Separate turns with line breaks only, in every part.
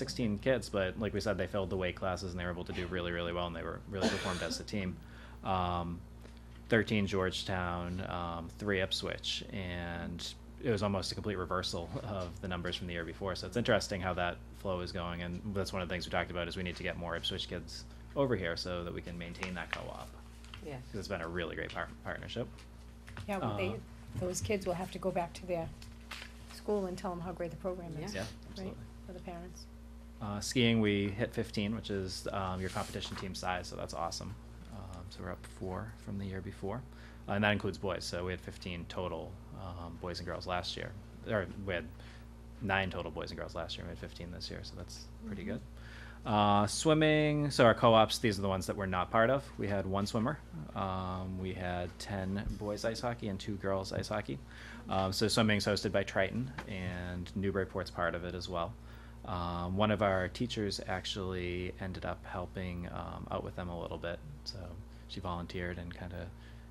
16 kids, but like we said, they filled the weight classes and they were able to do really, really well, and they were really performed as a team. Um, 13 Georgetown, um, three Ipswich, and it was almost a complete reversal of the numbers from the year before. So it's interesting how that flow is going, and that's one of the things we talked about is we need to get more Ipswich kids over here so that we can maintain that co-op
Yeah.
because it's been a really great par- partnership.
Yeah, well, they,
Uh,
those kids will have to go back to their school and tell them how great the program is.
Yeah,
right,
absolutely.
For the parents.
Uh, skiing, we hit 15, which is um, your competition team size, so that's awesome. Um, so we're up four from the year before, Uh, and that includes boys. So we had 15 total um, boys and girls last year, or we had nine total boys and girls last year. and We had 15 this year, so that's pretty good. Uh, swimming, so our co-ops, these are the ones that we're not part of. We had one swimmer. Um, we had 10 boys ice hockey and two girls ice hockey. Um, so swimming's hosted by Triton, and Newburyport's part of it as well. Um, one of our teachers actually ended up helping um, out with them a little bit. So she volunteered and kind of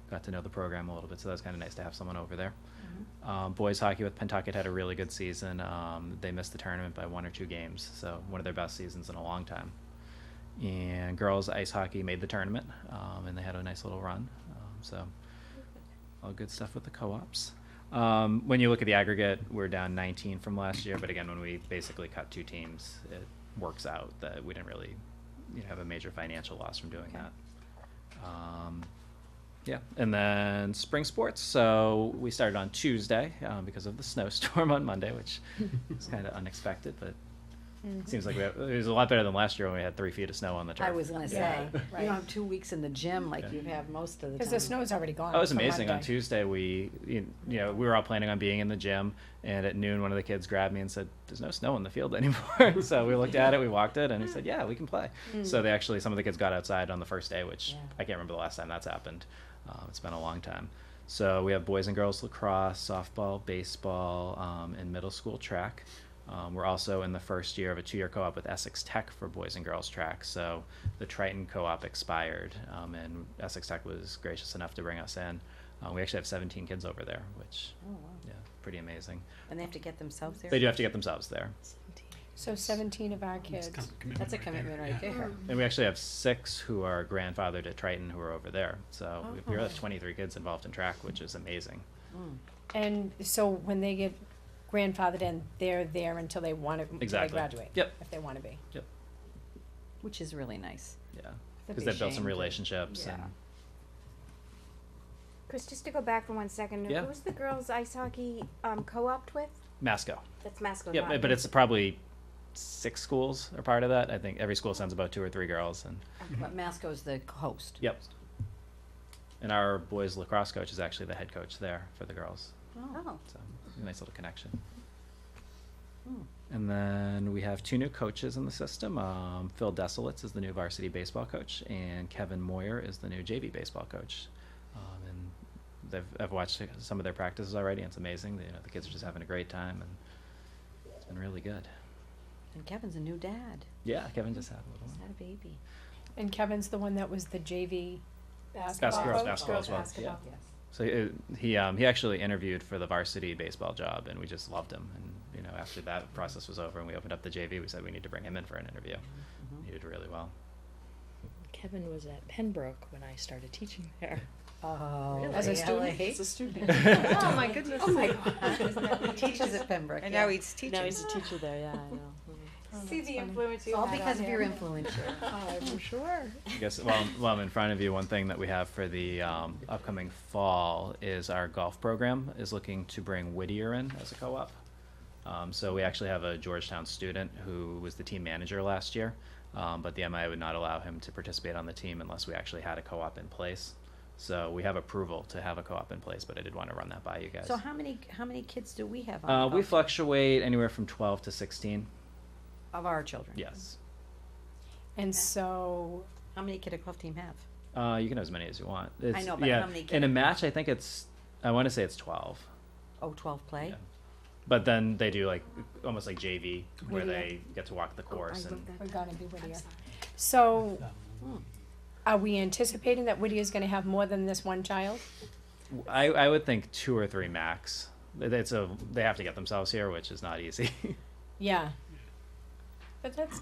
got to know the program a little bit. So that was kind of nice to have someone over there. Um, boys hockey with Pentucket had a really good season. Um, they missed the tournament by one or two games, so one of their best seasons in a long time. And girls ice hockey made the tournament, um, and they had a nice little run. Um, so all good stuff with the co-ops. Um, when you look at the aggregate, we're down 19 from last year, but again, when we basically cut two teams, it works out that we didn't really you know, have a major financial loss from doing
Okay.
that. Um, yeah, and then spring sports. So we started on Tuesday um, because of the snowstorm on Monday, which was kind of unexpected, but
Mhm.
seems like we have, it was a lot better than last year when we had three feet of snow on the turf.
I was gonna say,
Yeah.
you
Right.
don't have two weeks in the gym like
Yeah.
you have most of the time.
Cause the snow's already gone.
That Oh, was
for
amazing. On
Monday.
Tuesday, we, you you know, we were all planning on being in the gym, and at noon, one of the kids grabbed me and said, "There's no snow in the field anymore." so we looked at it, we walked it, and he said, "Yeah, we can play." So they actually, some of the kids got outside on the first day, which
Yeah.
I can't remember the last time that's happened. Um, it's been a long time. So we have boys and girls lacrosse, softball, baseball, um, and middle school track. Um, we're also in the first year of a two-year co-op with Essex Tech for boys and girls track. So the Triton co-op expired, um, and Essex Tech was gracious enough to bring us in. Uh, we actually have 17 kids over there, which
Oh, wow.
yeah, pretty amazing.
And they have to get themselves there?
They do have to get themselves there,
So seventeen of our kids.
That's a commitment right there.
and we actually have six who are grandfathered at Triton who are over there. So we- we
Oh.
have 23 kids involved in track, which is amazing.
Mm.
And so when they get grandfathered in, they're there until they wanna, until they
Exactly.
graduate.
Yep.
If they wanna be.
Yep.
Which is really nice.
Yeah,
That'd
because
be a
they've built
shame
some
to-
relationships
yeah.
and
Chris, just to go back for one second,
Yeah.
who's the girls' ice hockey um, co-opt with?
Masco.
That's Mascot.
Yeah, but it's probably six schools are part of that. I think every school sends about two or three girls, and
But Masco's the host.
Mm-hmm. yep. And our boys lacrosse coach is actually the head coach there for the girls,
Oh.
so a nice little connection.
Hmm.
And then we have two new coaches in the system. Um, Phil Desolitz is the new varsity baseball coach, and Kevin Moyer is the new JV baseball coach. Um, and they've, I've watched some of their practices already, and it's amazing. You know, the kids are just having a great time, and it's been really good.
And Kevin's a new dad.
Yeah, Kevin just had a little.
He's had a baby.
And Kevin's the one that was the JV
Basketball,
coach?
basketball as well. Yeah.
Yes.
So he, he um, he actually interviewed for the varsity baseball job, and we just loved him. And you know, after that process was over, and we opened up the JV, we said we need to bring him in for an interview.
Mm-hmm.
He did really well.
Kevin was at Pembroke when I started teaching there.
Oh,
As a
really?
student? As
a student.
Oh, my
goodness.
Oh, my God. He teaches at Pembroke,
And
yeah.
now he's teaching.
Now he's a teacher there, yeah, I know.
See the influence
It's Oh, all because of your influencer.
Uh,
Oh,
I guess while, I'm- while I'm in front of you, one thing that we have for the um, upcoming fall is our golf program is looking to bring Whittier in as a co-op. Um, so we actually have a Georgetown student who was the team manager last year, um, but the MIA would not allow him to participate on the team unless we actually had a co-op in place. So we have approval to have a co-op in place, but I did want to run that by you guys.
So how many, how many kids do we have on?
uh,
the
we
host?
fluctuate anywhere from 12 to 16.
Of our children?
Yes.
And so,
How many kid a golf team have?
Uh, you can have as many as you want. It's,
know, but
yeah.
how many
In a
can-
match, I think it's, I want to say it's 12.
Oh, twelve play?
Yeah. But then they do like almost like JV where
Whittier.
they get to walk the course and
we're gonna be Whittier. So, are we anticipating that Whittier's gonna have more than this one child?
I, I would think two or three max. It's a they have to get themselves here, which is not easy.
Yeah. But that's